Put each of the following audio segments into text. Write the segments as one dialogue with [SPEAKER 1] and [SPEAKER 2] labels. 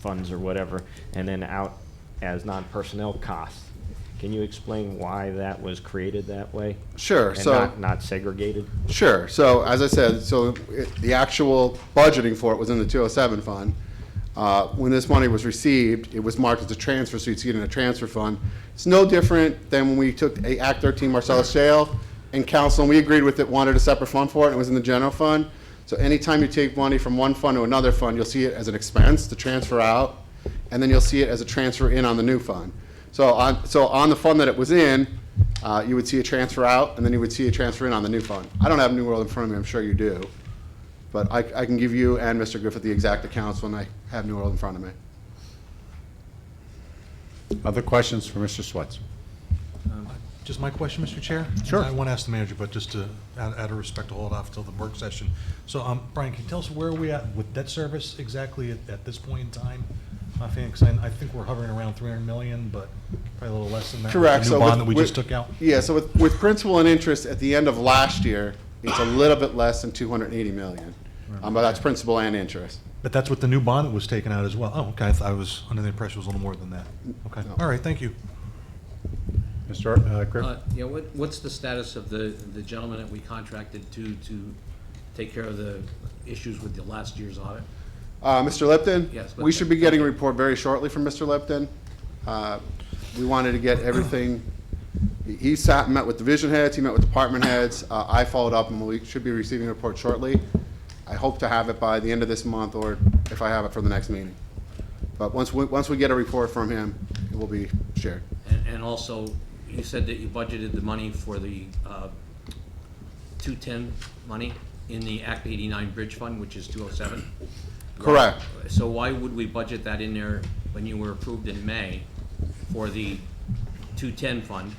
[SPEAKER 1] funds or whatever, and then out as non-personnel costs. Can you explain why that was created that way?
[SPEAKER 2] Sure, so-
[SPEAKER 1] And not, not segregated?
[SPEAKER 2] Sure. So as I said, so it, the actual budgeting for it was in the 207 fund. Uh, when this money was received, it was marked as a transfer, so you'd see it in a transfer fund. It's no different than when we took a Act 13 Marcellus Shale and council, and we agreed with it, wanted a separate fund for it, and it was in the general fund. So anytime you take money from one fund to another fund, you'll see it as an expense to transfer out, and then you'll see it as a transfer in on the new fund. So on, so on the fund that it was in, uh, you would see a transfer out, and then you would see a transfer in on the new fund. I don't have New World in front of me, I'm sure you do, but I, I can give you and Mr. Griffith the exact accounts when I have New World in front of me.
[SPEAKER 3] Other questions for Mr. Swets?
[SPEAKER 4] Just my question, Mr. Chair?
[SPEAKER 3] Sure.
[SPEAKER 4] I want to ask the manager, but just to, out out of respect, to hold off till the work session. So, um, Brian, can you tell us where we at with debt service exactly at, at this point in time? My feeling, 'cause I, I think we're hovering around three hundred million, but probably a little less than that. with
[SPEAKER 2] Correct.
[SPEAKER 4] The
[SPEAKER 2] so
[SPEAKER 4] new bond that
[SPEAKER 2] with-
[SPEAKER 4] we just
[SPEAKER 2] with-
[SPEAKER 4] took out.
[SPEAKER 2] Yeah, so with, with principal and interest at the end of last year, it's a little bit less than 280 million. Um, but that's principal and interest.
[SPEAKER 4] But that's what the new bond that was taken out as well. Oh, okay, I th- I was under the impression it was a little more than that. Okay,
[SPEAKER 2] No.
[SPEAKER 4] all right, thank you.
[SPEAKER 3] Mr. uh, Griffin?
[SPEAKER 5] Uh, Yeah, what, what's the status of the, the gentleman that we contracted to, to take care of the issues with the last year's audit?
[SPEAKER 2] Uh, Mr. Lipton?
[SPEAKER 5] Yes,
[SPEAKER 2] We should be
[SPEAKER 5] Lipton.
[SPEAKER 2] getting a report very shortly from Mr. Lipton. Uh, We wanted to get everything, he- he sat and met with division heads, he met with department heads. Uh, I followed up and we should be receiving a report shortly. I hope to have it by the end of this month or if I have it for the next meeting. But once we, once we get a report from him, it will be shared.
[SPEAKER 5] And, and also, you said that you budgeted the money for the two-ten money in the Act eighty-nine Bridge Fund, which is two oh seven?
[SPEAKER 2] Correct.
[SPEAKER 5] So why would we budget that in there when you were approved in May for the two-ten fund?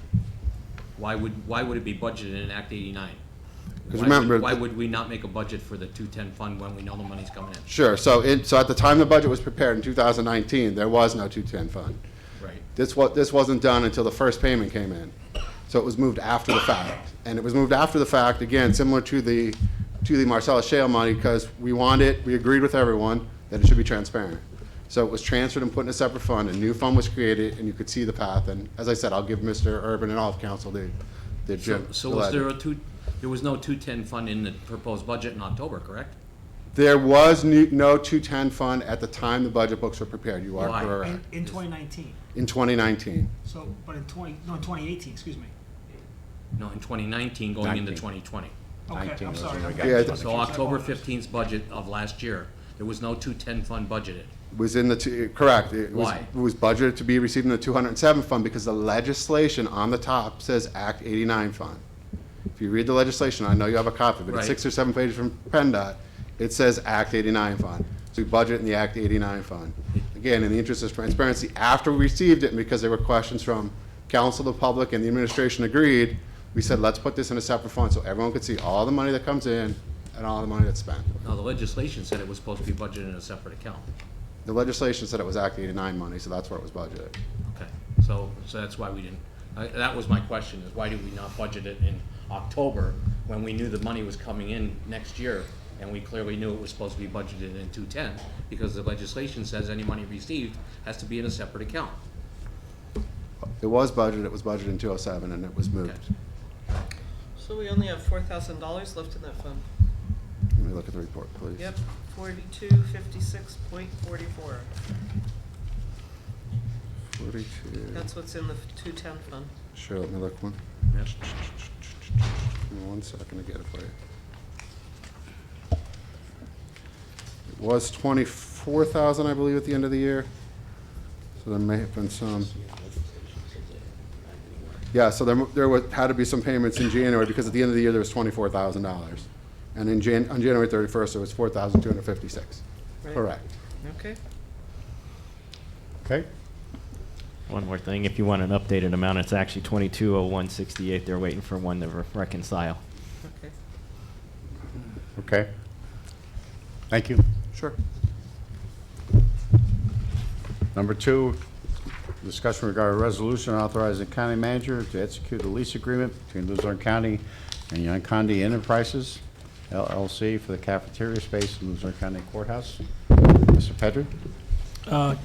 [SPEAKER 5] Why would, why would it be budgeted in Act eighty-nine? Why would-
[SPEAKER 2] remember-
[SPEAKER 5] Why would we not make a budget for the two-ten fund when we know the money's coming in?
[SPEAKER 2] Sure, so it, so at the time the budget was prepared in 2019, there was no 210 fund.
[SPEAKER 5] Right.
[SPEAKER 2] This wa, this wasn't done until the first payment came in. So it was moved after the fact. And it was moved after the fact, again, similar to the, to the Marcellus Shale money, because we want it, we agreed with everyone that it should be transparent. So it was transferred and put in a separate fund, a new fund was created, and you could see the path. And as I said, I'll give Mr. Urban and all of council the, the
[SPEAKER 5] So,
[SPEAKER 2] Jim.
[SPEAKER 5] so was there a two, there was no two-ten fund in the proposed budget in October, correct?
[SPEAKER 2] There was new- no 210 fund at the time the budget books were prepared, you are
[SPEAKER 5] Why?
[SPEAKER 2] correct.
[SPEAKER 6] In, in 2019,
[SPEAKER 2] in 2019.
[SPEAKER 6] so, but in 20, no, in 2018, excuse me.
[SPEAKER 5] No, in twenty nineteen going into twenty twenty.
[SPEAKER 6] Okay,
[SPEAKER 3] 19
[SPEAKER 6] I'm
[SPEAKER 3] was
[SPEAKER 6] sorry.
[SPEAKER 3] when we
[SPEAKER 6] I
[SPEAKER 3] got
[SPEAKER 2] Yeah,
[SPEAKER 6] got
[SPEAKER 2] it-
[SPEAKER 6] confused.
[SPEAKER 5] So October
[SPEAKER 6] I apologize.
[SPEAKER 5] fifteenth budget of last year, there was no two-ten fund budgeted.
[SPEAKER 2] Was in the, two- correct. It was-
[SPEAKER 5] Why?
[SPEAKER 2] It was budgeted to be received in the 207 fund because the legislation on the top says Act 89 fund. If you read the legislation, I know you have a copy, but it's
[SPEAKER 5] Right.
[SPEAKER 2] six or seven pages from PennDOT. It says Act 89 fund. So we budget in the Act 89 fund. Again, in the interest of transparency, after we received it, and because there were questions from council, the public, and the administration agreed, we said, let's put this in a separate fund so everyone could see all the money that comes in and all the money that's spent.
[SPEAKER 5] Now, the legislation said it was supposed to be budgeted in a separate account.
[SPEAKER 2] The legislation said it was Act 89 money, so that's where it was budgeted.
[SPEAKER 5] Okay, so, so that's why we didn't, I- that was my question, is why did we not budget it in October when we knew the money was coming in next year? And we clearly knew it was supposed to be budgeted in two-ten, because the legislation says any money received has to be in a separate account.
[SPEAKER 2] It was budgeted, it was budgeted in 207, and it was moved.
[SPEAKER 5] Okay.
[SPEAKER 7] So we only have four thousand dollars left in that fund.
[SPEAKER 2] Let me look at the report, please.
[SPEAKER 7] Yep, forty-two fifty-six point forty-four.
[SPEAKER 2] 42,
[SPEAKER 7] That's what's in the two-ten fund.
[SPEAKER 2] sure, let me look one.
[SPEAKER 5] Yep.
[SPEAKER 2] Give me one second to get it for you. It was 24,000, I believe, at the end of the year, so there may have been some. Yeah, so there, there was, had to be some payments in January, because at the end of the year, there was $24,000. And in Jan, on January 31st, it was 4,256.
[SPEAKER 7] Right.
[SPEAKER 2] Correct.
[SPEAKER 7] Okay.
[SPEAKER 3] Okay.
[SPEAKER 1] One more thing, if you want an updated amount, it's actually twenty-two oh one sixty-eight, they're waiting for one to re- reconcile.
[SPEAKER 7] Okay.
[SPEAKER 3] Okay. Thank you.
[SPEAKER 2] Sure.
[SPEAKER 3] Number two, discussion regarding resolution authorizing county manager to execute a lease agreement between Luzerne County and Yonkondi Enterprises LLC for the cafeteria space in Luzerne County Courthouse. Mr. Pedri?
[SPEAKER 8] Uh, Uh,